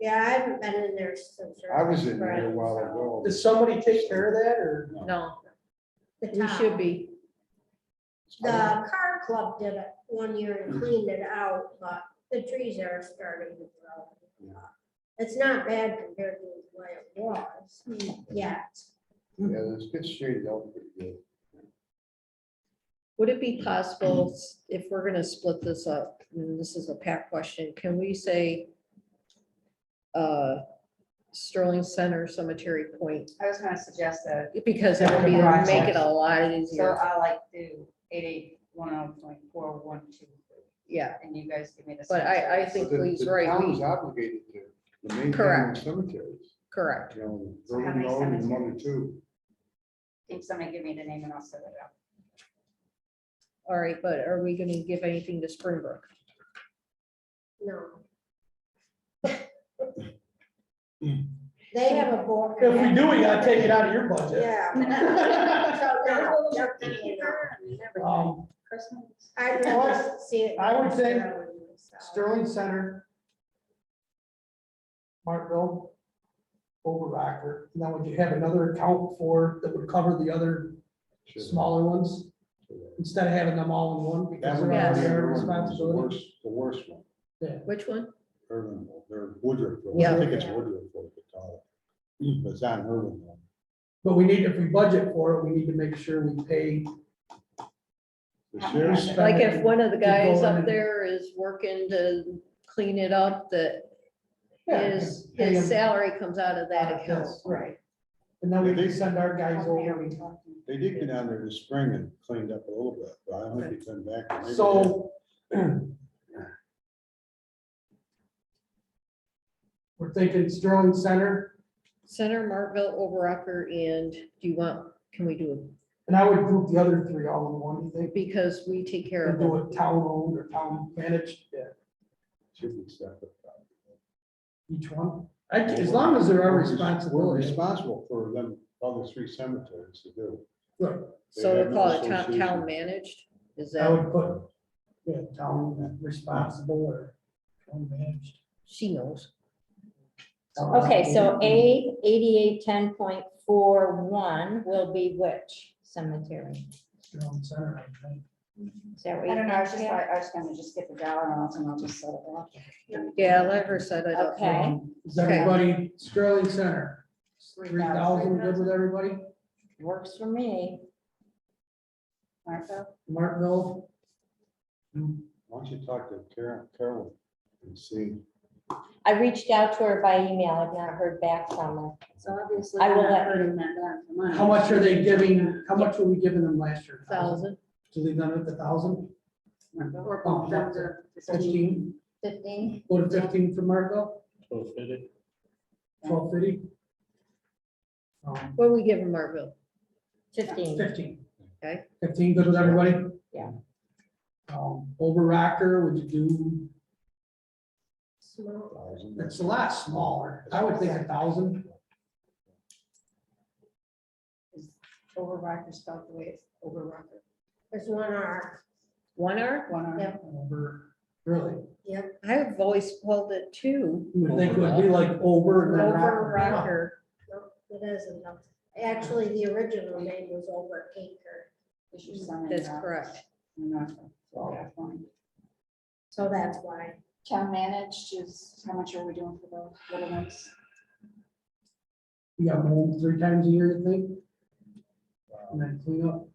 Yeah, I haven't been in there since. I was in there a Right, while so- ago. Does somebody take care of that or? No, The we town. should be. The car club did it one year and cleaned it out, but the trees are starting to grow. Yeah. It's not bad compared to the way it was, Hmm. yet. Yeah, it's good shaded out pretty good. Would it be possible, s- if we're gonna split this up, and this is a pack question, can we say uh Sterling Center Cemetery Point? I was gonna suggest that, Because that would be, make it a lot so easier. I like do eight eight one oh point four one two, Yeah, and you guys give me the. But I- I cemeteries. think But the- Lee's the right, town we- is obligated to, the main Correct. cemeteries, correct. you know, So how many Groveland Road and one or cemeteries? two. Can somebody give me the name and I'll set it up? All right, but are we gonna give anything to Springbrook? No. They have a board. If we do, we gotta take it out of your budget. Yeah. So they're- they're paying her. Um, Christmas. I'd rather see it. I would say so. Sterling Center. Martville. Over Rocker. Now, would you have another account for, that would cover the other Sure. smaller ones? Instead of having them all in one That because would be they're Yeah. all their Irvin, the responsibility. worst, the worst one, Which one? Irvin, or Woodruff, Road. Yeah. I think it's Woodruff, Road they call it. but it's on Irvin. Road. But we need, if we budget for it, we need to make sure we pay. The Yeah. sheriff's Like if one of the To go guys in and- up there is working to clean it up, that his, Pay them. his salary comes out of that Yes, account. Right. And then we can send our guys How many are over. we talking? They did get down there this spring and cleaned up a little bit, but I don't think they come back. Maybe they- So. We're thinking Sterling Center, Center, Martville, Overocker, and do you want, can we do it? and I would group the other three all in one, you think? Because we take care And of do them. it town owned or town managed, yeah, Should be separate. each one. I- As long as they're our We're res- We're responsibility. responsible for them, all the three cemeteries to do. Look, They So we have call no it town, association. town managed, is I would that, put, yeah, town responsible or town managed. she knows. Okay, so A, eighty-eight, ten point four one will be which cemetery? Sterling Center, I think. Is that what I you're don't know, I was just thinking? like, I was gonna just get the dollar amount and I'll just set it up. Yeah, let her set it up. Okay. Is everybody, Sterling Center, three thousand, good with everybody? Works for me. Martha, Martinville, Why don't you talk to Carol, Carol and see? I reached out to her by email. I've not heard back from her. so obviously. I will we're not let- hurting that down for money. how much are they giving, how much were we giving them last year? Thousand, To leave them at the thousand, Martha, Or Oh, bump them to fifteen. fifteen, Fifteen? go to fifteen for Martinville, So fit it. twelve fifty? what do we give in Martville? Fifteen. Fifteen. Okay. Fifteen, good with everybody? Yeah. Um, over Rocker, would you do, Small. Uh, it's a lot smaller, I would think a thousand, Overrocker spelled the way it's overrocker. There's one R. One hour? One R. Yeah. over, really? I have always called it two. You would think it would be like over and then Rocker. Overocker, Nope, It isn't. Actually, the original name was Over Acre, Is your son in that's there? correct. Martha, so that's fine. so that's why. Town managed is, how much are we doing for the little ones? You got mold three times a year, you think, and then clean up.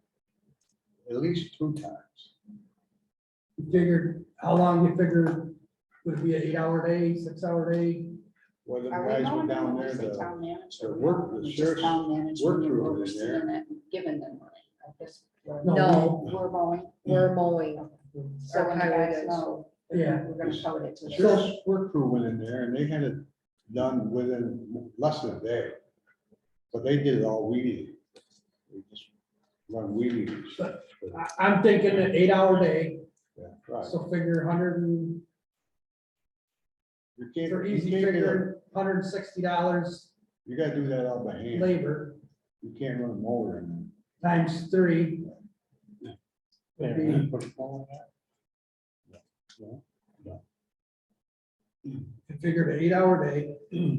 At least two times. You figured, how long you figure would it be an eight-hour day, six-hour day? Well, the Are we guys were going down down there, say the town manager? the work- the sheriff's work crew is there. Giving them money. I guess we're- No. We're going. We're mowing. So when you highway guys does. know, Yeah. We're gonna code it to. the the- sheriff's work crew went in there and they had it done within less than a day. But they did it all weedy. They just run weedy. I, I'm thinking an eight-hour day, Yeah, right. so figure hundred and, You can't, for you easy can't get a- figuring, hundred and sixty dollars you gotta do that all by hand. labor You can't run a mower in there. times three. Yeah. Be- Put a phone in there? No, no. and figured an eight-hour day,